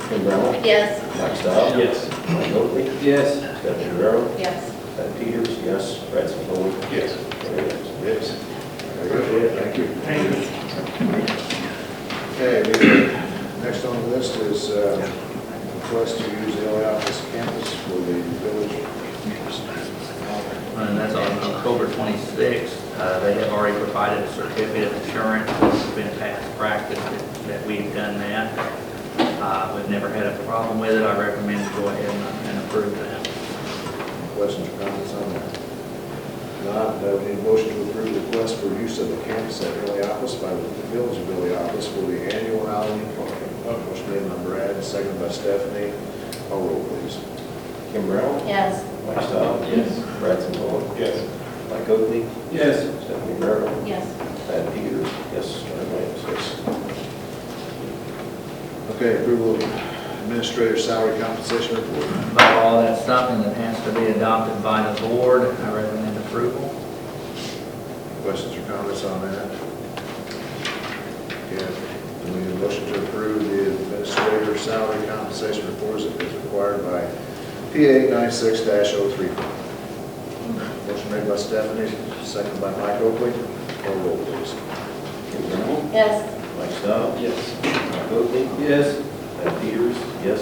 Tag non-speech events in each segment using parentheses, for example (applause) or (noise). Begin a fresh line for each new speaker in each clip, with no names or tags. Bryant,
Yes.
Mike Stiles.
Yes.
Mike Oakley,
Yes.
Stephanie Guerrero,
Yes.
Ted Peters, yes, Bradley Boyd.
Yes.
Larry Ellison.
Yes. Very good, thank you. Thank you. Okay, the, next on the list is uh, request to use El Alpes campus for the village.
And that's on October 26th. Uh, They have already provided a certificate of insurance. It's been past practice that- that we've done that. Uh, We've never had a problem with it. I recommend go ahead and- and approve that.
Questions or comments on that? Not, uh, we need a motion to approve the request for use of the campus at El Alpes by the village of El Alpes for the annual Halloween party. Motion made by Brad, seconded by Stephanie. Call roll, please.
Kim Brown,
Yes.
Mike Stiles.
Yes.
Bradley Boyd.
Yes.
Mike Oakley,
Yes.
Stephanie Guerrero,
Yes.
Ted Peters, yes, Larry Ellison.
Yes. Okay, approval of administrator salary compensation report.
By law, that's something that has to be adopted by the board. I recommend approval.
Questions or comments on that? Okay, we need a motion to approve the administrator salary compensation reports as required by PA ninety-six 3 oh Motion made by Stephanie, second by Mike Oakley. Call roll, please.
Kim Brown,
Yes.
Mike Stiles.
Yes.
Mike Oakley,
Yes.
Ted Peters, yes,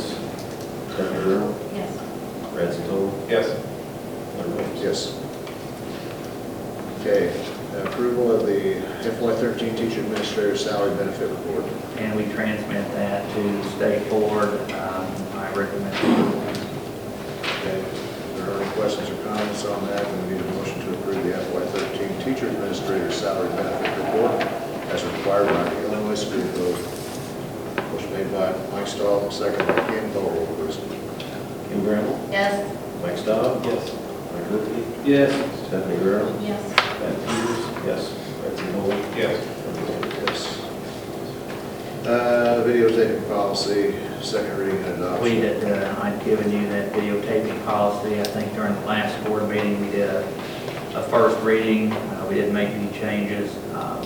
Stephanie Guerrero,
Yes.
Bradley Boyd.
Yes.
Larry Ellison.
Yes. Okay, approval of the FY thirteen teacher administrator salary benefit report.
And we transmit that to the state board. Um, I recommend approval.
Okay, if there are any questions or comments on that, then we need a motion to approve the FY13 teacher administrator salary benefit report as required by the Illinois Supreme Court. Motion made by Mike Stahl, second by Ken Thorold, please.
Kim Brown,
Yes.
Mike Stiles.
Yes.
Mike Oakley,
Yes.
Stephanie Guerrero,
Yes.
Ted Peters, yes, Bradley Boyd.
Yes.
Larry Ellison.
Yes. Uh, Videotaping policy, second reading and adoption.
We had, uh, I'd given you that videotaping policy, I think during the last board meeting, we did a, a first reading, Uh, we didn't make any changes. Um,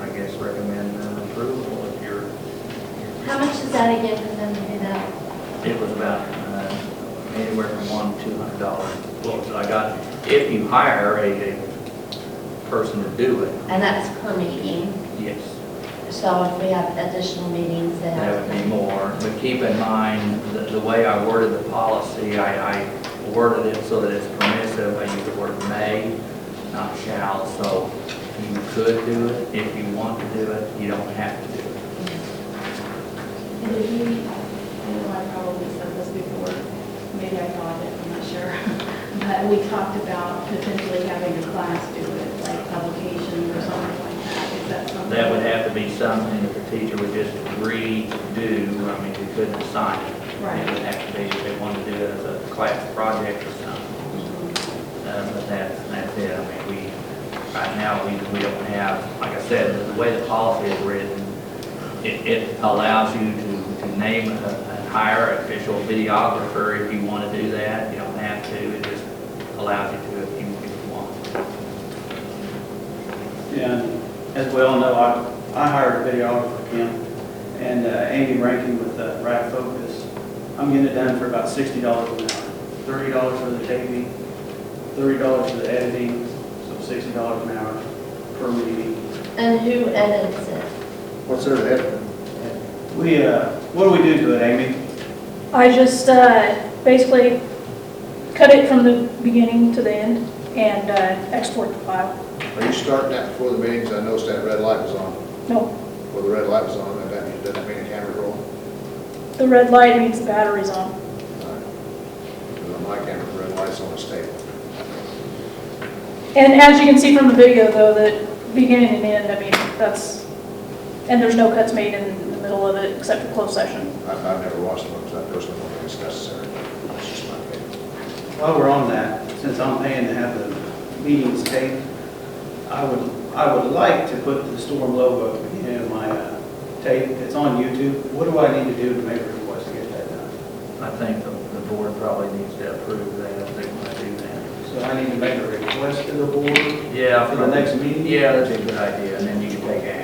I guess recommend uh, approval if you're,
How much is that again for them to do that?
it was about uh, anywhere from one, to two hundred dollars. Well, I got, if you hire a, a person to do it,
And that's per meeting,
yes,
so if we have additional meetings, then.
that would be more. But keep in mind, the, the way I worded the policy, I, I worded it so that it's permissive, I used the word may, not shall, so you could do it if you want to do it, you don't have to do it.
And did we, I know I probably said this before, maybe I thought it, I'm not sure. (laughs) But we talked about potentially having a class do it, like publication or something like that. Is that something?
That would have to be something that the teacher would just redo, I mean, you couldn't assign it. It would
Right.
have to be, if they wanted to do it as a class project or something. Uh, But that's, that's it, I mean, we, right now, we, we don't have, like I said, the- the way the policy is written, it, it allows you to, to name a- and hire an official videographer if you want to do that, you don't have to, it just allows you to if you, if you want.
And as we all know, I, I hired a videographer, Kim, and uh, Amy Rankin with uh, Rack Focus. I'm getting it done for about sixty dollars an hour. Thirty dollars for the taping, thirty dollars for the editing, so sixty dollars an hour per meeting.
And who edits it?
What's there to add?
We, uh, what do we do to it, Amy?
I just uh, basically cut it from the beginning to the end and uh, export the file.
Are you starting that before the meetings? I noticed that red light was on.
No,
Well, the red light was on, and that means, doesn't that mean the camera roll?
the red light means the battery's on.
Because on my camera, the red light's on the table.
And as you can see from the video though, the beginning and end, I mean, that's, and there's no cuts made in the middle of it except for closed session.
I've, I've never watched one, because I personally don't think it's necessary. That's just my opinion.
While we're on that, since I'm paying to have the meetings taped, I would, I would like to put the storm logo in my uh, tape. It's on YouTube. What do I need to do to make a request to get that done?
I think the, the board probably needs to approve that if they want to do that.
So I need to make a request to the board
Yeah,
for the next meeting?
Yeah, that's a good idea, and then you can take action.